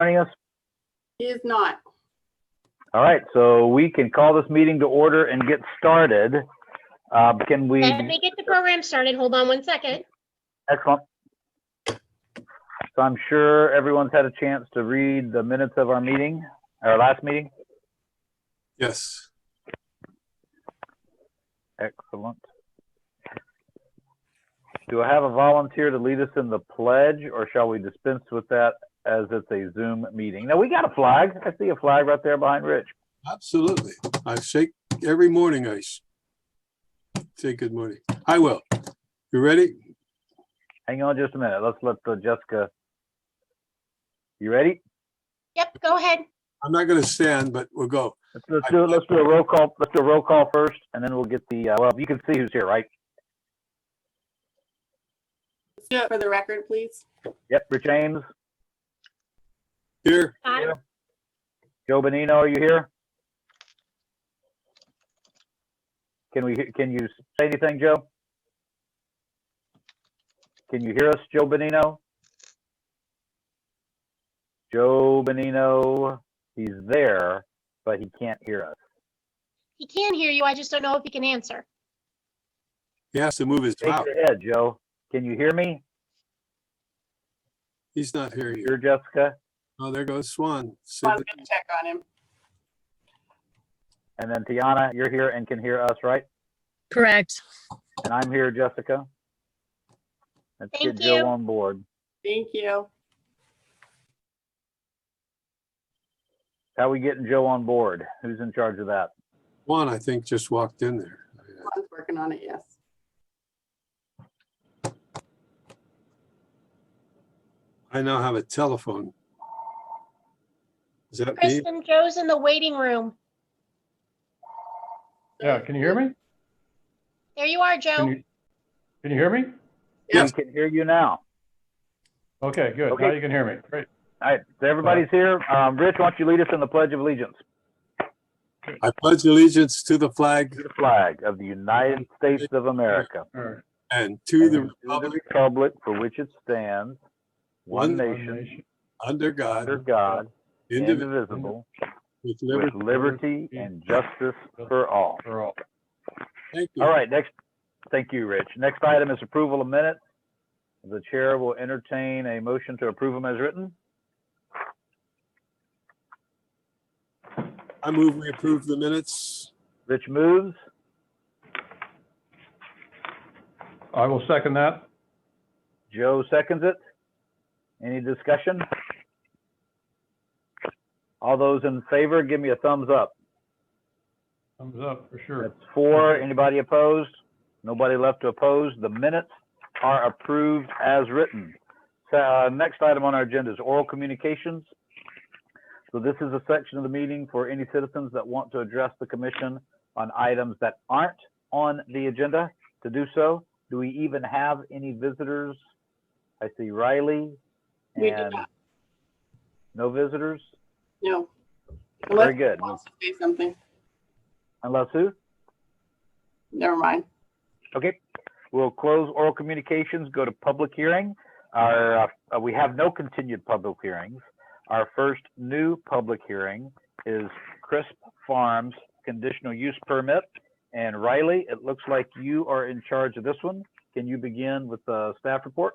joining us? He is not. All right, so we can call this meeting to order and get started. Uh, Can we, Let me get the program started. Hold on one second. excellent. So I'm sure everyone's had a chance to read the minutes of our meeting, our last meeting. Yes, Excellent. Do I have a volunteer to lead us in the pledge, or shall we dispense with that as it's a Zoom meeting? Now, we got a flag. I see a flag right there behind Rich. absolutely. I shake every morning. I sh- say good morning. I will. You ready? Hang on just a minute. Let's let the Jessica. You ready? Yep, go ahead. I'm not going to stand, but we'll go. Let's, let's do it. Let's do a roll call. Let's do a roll call first, and then we'll get the, uh, well, you can see who's here, right? Let's do it Uh, for the record, please. Yep, Rich Ames, Here, Don, Joe Benino, are you here? Can we, he- can you say anything, Joe? Can you hear us, Joe Benino? Joe Benino, he's there, but he can't hear us. He can hear you. I just don't know if he can answer. he has to move his Shake mouth. your head, Joe. Can you hear me? He's not hearing you. Hear Jessica? Oh, there goes Swan. See I'm the- gonna check on him. And then Tiana, you're here and can hear us, right? Correct. And I'm here, Jessica. Let's get Thank Joe you. on board. Thank you. How we getting Joe on board? Who's in charge of that? Swan, I think, just walked in there. One's working on it, yes. I now have a telephone. Is that me? Kristen, Joe's in the waiting room. Yeah, can you hear me? There you are, Can Joe. you, can you hear me? We Yes. can hear you now. Okay, good. Now Okay. you can hear me. Great. All right, so everybody's here. Um, Rich, why don't you lead us in the Pledge of Allegiance? I pledge allegiance to the flag To The flag of the United States of America. All right. and to the and to republic Republic for which it stands, one One nation, under God, under God, indivisible, indivisible, with with liberty. liberty and justice for all. For all. Thank you. All right, next, thank you, Rich. Next item is approval of minutes. The chair will entertain a motion to approve them as written. I move we approve the minutes. Rich moves. I will second that. Joe seconds it. Any discussion? All those in favor, give me a thumbs up. Thumbs up for That's sure. four. Anybody opposed? Nobody left to oppose. The minutes are approved as written. So, uh, next item on our agenda is oral communications. So this is a section of the meeting for any citizens that want to address the commission on items that aren't on the agenda to do so. Do we even have any visitors? I see Riley We do and not. no visitors. No. Very Unless good. he wants to say something. Unless who? Never mind. Okay, we'll close oral communications, go to public hearing. Our, uh, we have no continued public hearings. Our first new public hearing is Crisp Farms Conditional Use Permit. And Riley, it looks like you are in charge of this one. Can you begin with the staff report?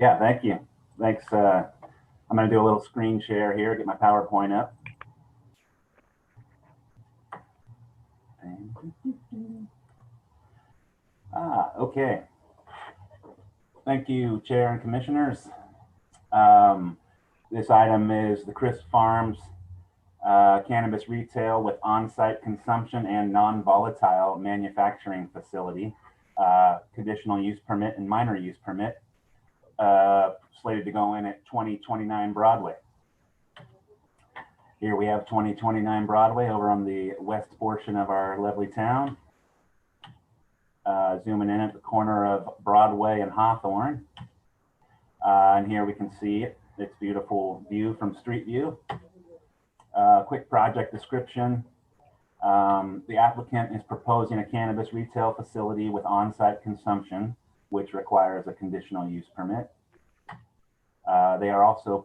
Yeah, thank you. Thanks. Uh, I'm going to do a little screen share here, get my PowerPoint up. And- Ah, okay. Thank you, Chair and Commissioners. Um, this item is the Chris Farms uh, Cannabis Retail with On-Site Consumption and Non-Volatile Manufacturing Facility, uh, Conditional Use Permit and Minor Use Permit uh, slated to go in at 2029 Broadway. Here we have 2029 Broadway over on the west portion of our lovely town. Uh, zooming in at the corner of Broadway and Hawthorne. Uh, and here we can see it. It's beautiful view from Street View. Uh, quick project description. Um, the applicant is proposing a cannabis retail facility with on-site consumption which requires a conditional use permit. Uh, They are also